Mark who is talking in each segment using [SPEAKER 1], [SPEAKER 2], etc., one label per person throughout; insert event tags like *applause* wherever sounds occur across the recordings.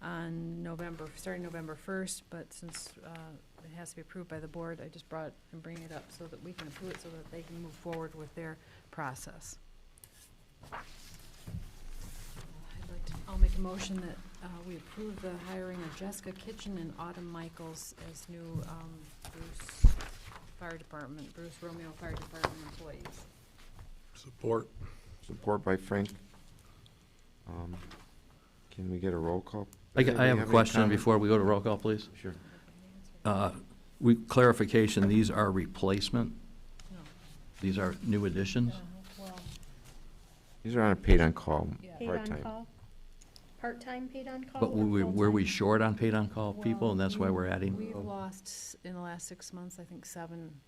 [SPEAKER 1] on November, starting November first, but since, uh, it has to be approved by the board, I just brought and bring it up so that we can approve it, so that they can move forward with their process. I'd like to, I'll make a motion that, uh, we approve the hiring of Jessica Kitchen and Autumn Michaels as new, um, Bruce Fire Department, Bruce Romeo Fire Department employees.
[SPEAKER 2] Support.
[SPEAKER 3] Support by Frank. Um, Can we get a roll call?
[SPEAKER 4] I,
[SPEAKER 3] Does
[SPEAKER 4] I have
[SPEAKER 3] anybody
[SPEAKER 4] a
[SPEAKER 3] any
[SPEAKER 4] question
[SPEAKER 3] comment?
[SPEAKER 4] before we go to roll call, please.
[SPEAKER 3] Sure.
[SPEAKER 4] Uh, We, clarification, these are replacement?
[SPEAKER 1] No.
[SPEAKER 4] These are new additions?
[SPEAKER 1] Uh, Well,
[SPEAKER 3] These are on a paid-on-call,
[SPEAKER 1] Yeah.
[SPEAKER 5] Paid on
[SPEAKER 3] part-time.
[SPEAKER 5] call? Part-time paid on call?
[SPEAKER 4] But
[SPEAKER 5] or
[SPEAKER 4] we, were we
[SPEAKER 5] full-time?
[SPEAKER 4] short on paid-on-call people, and that's why we're adding?
[SPEAKER 1] We've lost, s- in the last six months, I think, seven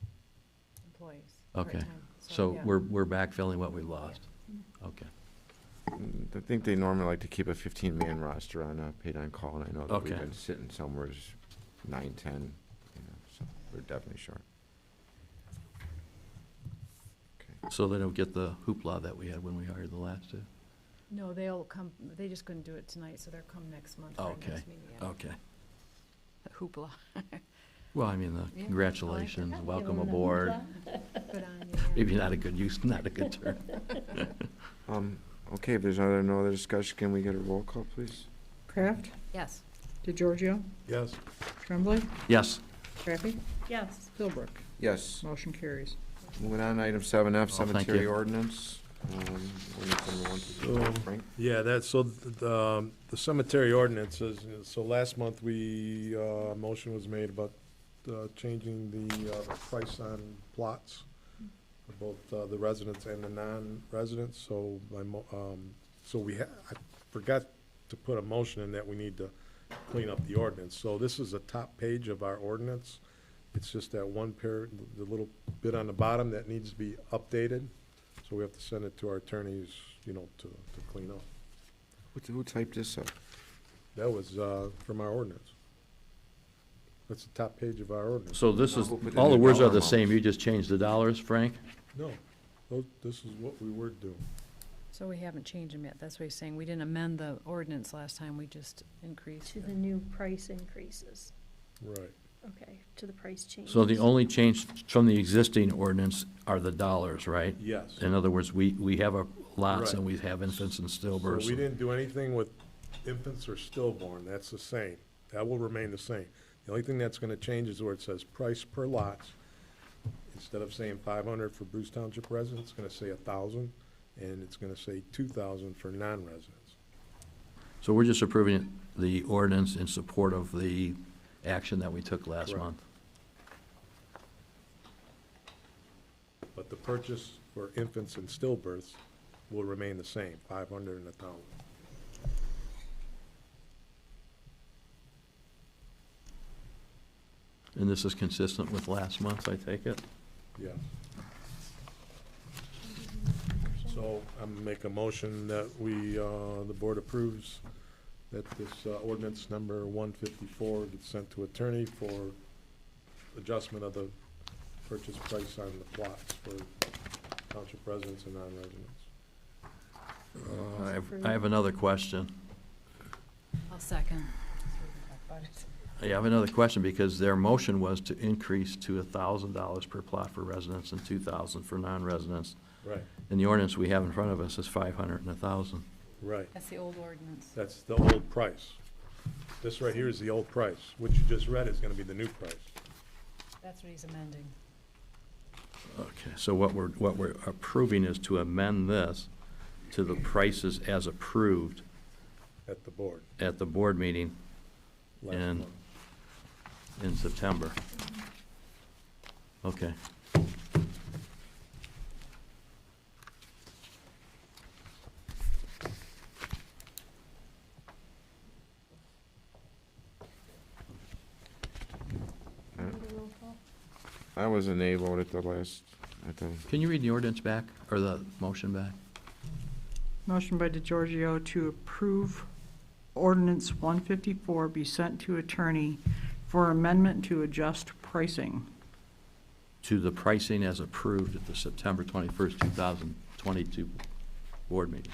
[SPEAKER 1] employees.
[SPEAKER 4] Okay.
[SPEAKER 1] part-time.
[SPEAKER 4] So
[SPEAKER 1] yeah.
[SPEAKER 4] we're, we're backfilling what we lost? Okay,
[SPEAKER 3] Mm, I think they normally like to keep a fifteen-man roster on a paid-on-call, and I know that we've
[SPEAKER 4] Okay.
[SPEAKER 3] been sitting somewheres nine, ten, you know, so we're definitely short. Okay.
[SPEAKER 4] so they don't get the hoopla that we had when we hired the last two?
[SPEAKER 1] No, they'll come, they just couldn't do it tonight, so they'll come next month for our
[SPEAKER 4] Okay. Oh.
[SPEAKER 1] next meeting. yeah.
[SPEAKER 4] Okay.
[SPEAKER 1] Hoopla.
[SPEAKER 4] Well, I mean, the
[SPEAKER 1] Yeah.
[SPEAKER 4] congratulations,
[SPEAKER 5] Give
[SPEAKER 4] welcome
[SPEAKER 5] them the
[SPEAKER 4] aboard.
[SPEAKER 5] hoopla.
[SPEAKER 1] Good *laughs* on you, yeah.
[SPEAKER 4] Maybe not a good use, *laughs* not a good term.
[SPEAKER 3] Um, Okay, if there's other, no other discussion, can we get a roll call, please?
[SPEAKER 6] Kraft,
[SPEAKER 1] Yes.
[SPEAKER 6] DeGiorgio,
[SPEAKER 2] Yes.
[SPEAKER 6] Tremblay,
[SPEAKER 4] Yes,
[SPEAKER 6] Crappy,
[SPEAKER 5] Yes,
[SPEAKER 6] Philbrook.
[SPEAKER 3] Yes.
[SPEAKER 6] Motion carries.
[SPEAKER 3] Moving on, item seven F,
[SPEAKER 4] Oh, thank
[SPEAKER 3] cemetery
[SPEAKER 4] you.
[SPEAKER 3] ordinance. Um, ordinance number one,
[SPEAKER 2] So-
[SPEAKER 3] Frank?
[SPEAKER 2] Yeah, that's, so th- the, um, the cemetery ordinances, so last month we, uh, motion was made about, uh, changing the, uh, price on plots for both, uh, the residents and the non-residents, so my mo- um, so we ha- I forgot to put a motion in that we need to clean up the ordinance. So this is the top page of our ordinance. It's just that one pair, the little bit on the bottom that needs to be updated. So we have to send it to our attorneys, you know, to, to clean up.
[SPEAKER 3] Who- Who typed this up?
[SPEAKER 2] That was, uh, from our ordinance. That's the top page of our ordinance.
[SPEAKER 4] so this
[SPEAKER 3] No,
[SPEAKER 4] is,
[SPEAKER 3] we'll put in
[SPEAKER 4] all the
[SPEAKER 3] the
[SPEAKER 4] words are
[SPEAKER 3] dollar
[SPEAKER 4] the same,
[SPEAKER 3] amounts.
[SPEAKER 4] you just changed the dollars, Frank?
[SPEAKER 2] No, tho- this is what we were doing.
[SPEAKER 1] So we haven't changed them yet, that's what he's saying, we didn't amend the ordinance last time, we just increased.
[SPEAKER 5] to the
[SPEAKER 1] the-
[SPEAKER 5] new price increases,
[SPEAKER 2] Right.
[SPEAKER 5] okay, to the price changes.
[SPEAKER 4] So the only change from the existing ordinance are the dollars, right?
[SPEAKER 2] Yes.
[SPEAKER 4] In other words, we, we have our lots and
[SPEAKER 2] Right.
[SPEAKER 4] we have infants and
[SPEAKER 2] So we
[SPEAKER 4] stillbirths.
[SPEAKER 2] didn't do anything with infants or stillborn, that's the same. That will remain the same. The only thing that's gonna change is where it says price per lot. Instead of saying five hundred for Bruce Township residents, it's gonna say a thousand, and it's gonna say two thousand for non-residents.
[SPEAKER 4] So we're just approving the ordinance in support of the action that we took last
[SPEAKER 2] Correct.
[SPEAKER 4] month.
[SPEAKER 2] But the purchase for infants and stillbirths will remain the same, five hundred and a thousand.
[SPEAKER 4] And this is consistent with last month, I take it?
[SPEAKER 2] Yes. So I'm make a motion that we, uh, the board approves that this uh, ordinance number one fifty-four gets sent to attorney for adjustment of the purchase price on the plots for township residents and non-residents.
[SPEAKER 4] Uh, I have- I have another question.
[SPEAKER 1] I'll second.
[SPEAKER 4] I have another question because their motion was to increase to thousand dollars per plot for residents and two thousand for non-residents.
[SPEAKER 2] Right,
[SPEAKER 4] And the ordinance we have in front of us is five hundred and a thousand.
[SPEAKER 2] right.
[SPEAKER 1] That's the old ordinance.
[SPEAKER 2] That's the old price. This right here is the old price. What you just read is gonna be the new price.
[SPEAKER 1] That's what he's amending.
[SPEAKER 4] Okay, so what we're, what we're approving is to amend this to the prices as approved
[SPEAKER 2] at the board
[SPEAKER 4] at the board meeting
[SPEAKER 2] last
[SPEAKER 4] And-
[SPEAKER 2] month.
[SPEAKER 4] in September. Okay.
[SPEAKER 5] Roll call.
[SPEAKER 3] I was enabled at the last, at the,
[SPEAKER 4] Can you read the ordinance back, or the motion back?
[SPEAKER 6] Motion by DeGiorgio to approve ordinance 154 be sent to attorney for amendment to adjust pricing.
[SPEAKER 4] To the pricing as approved at the September twenty-first, two thousand twenty-two board meeting.